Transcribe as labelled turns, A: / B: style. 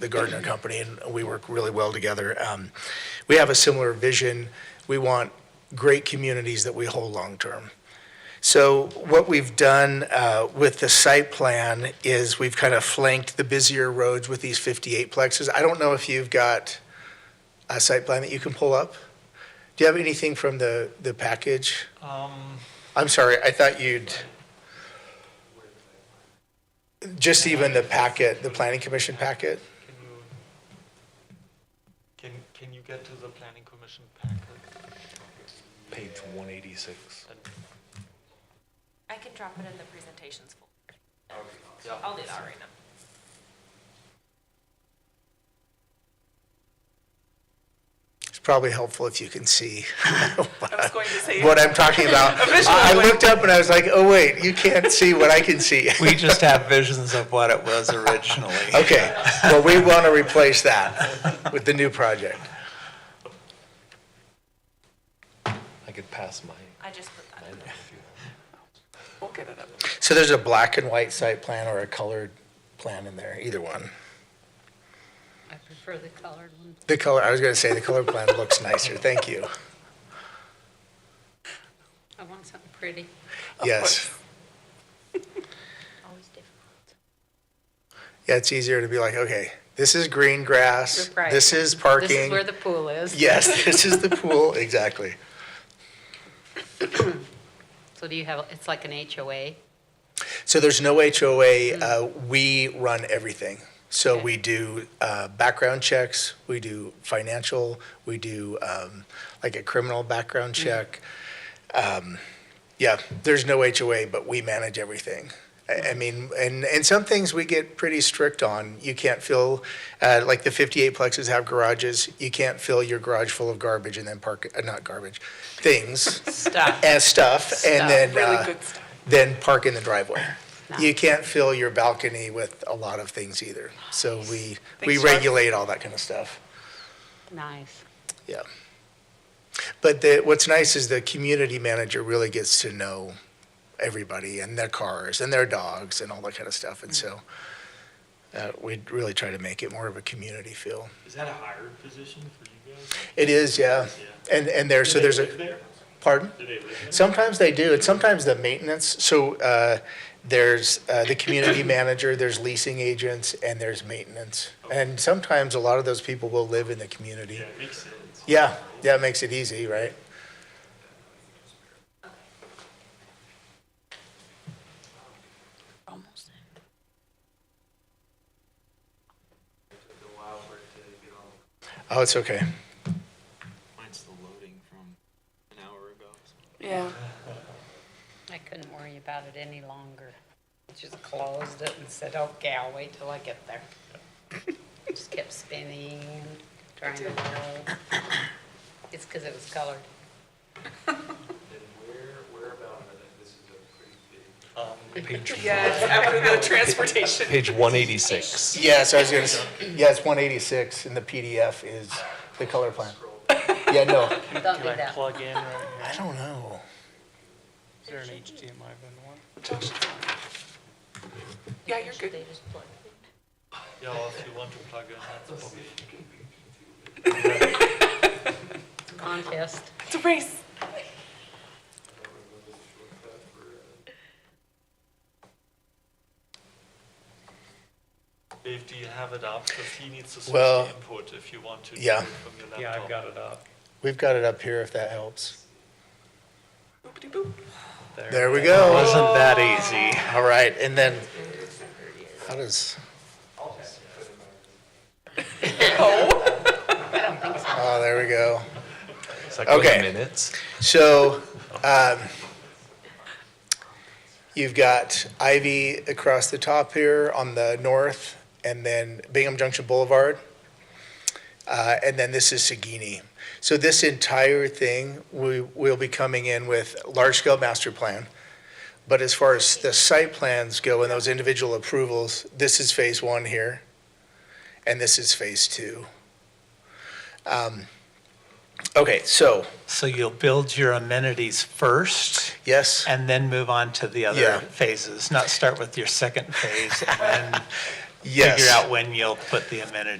A: the Gardner Company, and we work really well together. Um, We have a similar vision. We want great communities that we hold long-term. So what we've done uh, with the site plan is we've kind of flanked the busier roads with these 58 plexes. I don't know if you've got a site plan that you can pull up? Do you have anything from the, the package?
B: Um,
A: I'm sorry, I thought you'd, just even the packet, the planning commission packet?
B: can you, can, can you get to the planning commission packet?
C: Page 186.
B: And-
D: I can drop it in the presentations folder.
B: yeah.
D: I'll do that right now.
A: It's probably helpful if you can see
D: I was going to say.
A: what I'm talking about. I I looked up and I was like, oh, wait, you can't see what I can see.
E: We just have visions of what it was originally.
A: Okay, well, we want to replace that with the new project.
C: I could pass mine.
D: I just put that in.
C: mine if you want.
B: We'll get it up.
A: So there's a black and white site plan or a colored plan in there, either one.
F: I prefer the colored one.
A: The color, I was going to say, the color plan looks nicer, thank you.
F: I want something pretty.
A: Yes.
F: Always difficult.
A: Yeah, it's easier to be like, okay, this is green grass,
F: Right.
A: this is
F: This is
A: parking.
F: where the pool is.
A: Yes, this is the pool, exactly.
F: So do you have, it's like an HOA?
A: So there's no HOA. Uh, we run everything. So
F: Mm-hmm. Okay.
A: we do uh, background checks, we do financial, we do um, like a criminal background
F: Mm.
A: check. Um, yeah, there's no HOA, but we manage everything. I, I
F: Mm-hmm.
A: mean, and, and some things we get pretty strict on. You can't fill, uh, like the 58 plexes have garages. You can't fill your garage full of garbage and then park, uh, not garbage, things
F: Stuff.
A: and stuff, and
F: Stuff,
A: then
F: really
A: uh,
F: good stuff.
A: then park in the driveway.
F: No.
A: You can't fill your balcony with a lot of things either. So we we regulate all that kind of stuff.
F: Nice.
A: Yeah. But the, what's nice is the community manager really gets to know everybody and their cars and their dogs and all that kind of stuff. And so uh, we really try to make it more of a community feel.
G: Is that a hired position for you guys?
A: It is, yeah. And and there, so
G: Do they
A: there's
G: live
A: a
G: there?
A: pardon.
G: Do they live there?
A: Sometimes they do, and sometimes the maintenance, so uh, there's uh, the community manager, there's leasing agents, and there's maintenance. And sometimes a lot of those people will live in the community.
G: Yeah, it makes sense.
A: Yeah, yeah, it makes it easy, right?
F: Almost.
A: Oh, it's okay.
G: Mine's the loading from an hour ago.
H: Yeah.
F: I couldn't worry about it any longer. I Just closed it and said, okay, I'll wait till I get there. Just kept spinning and trying to roll. It's because it was colored.
E: Um,
H: Yeah, after the transportation.
C: Page 186.
A: Yeah, so I was gonna, s- yeah, it's 186, and the PDF is the color plan. Yeah, no,
F: Don't do
B: Can I
F: that.
B: plug in right here?
A: I don't know.
B: Is there an HDMI bin one?
H: Yeah, you're good.
B: Yeah, or if you want to plug in, that's probably.
F: Contest.
H: It's a race.
B: Dave, do you have it up? Because he needs to switch
A: Well,
B: the input if you want to. do
A: yeah.
B: it From your laptop.
E: Yeah, I've got it up.
A: We've got it up here if that helps.
H: Boop-de-boop.
A: There we go.
E: Wasn't that easy?
A: All right, and then, how does? Oh, there we go.
C: It's like
A: Okay.
C: okay. minutes.
A: So, um, you've got Ivy across the top here on the north, and then Bingham Junction Boulevard. Uh, and then this is Sagini. So this entire thing, we will be coming in with large-scale master plan. But as far as the site plans go and those individual approvals, this is phase one here, and this is phase two. Um, Okay, so,
E: So you'll build your amenities first
A: yes?
E: and then move on to the
A: Yeah.
E: other phases, not start with your second phase and then
A: Yes.
E: figure out when you'll put the amenities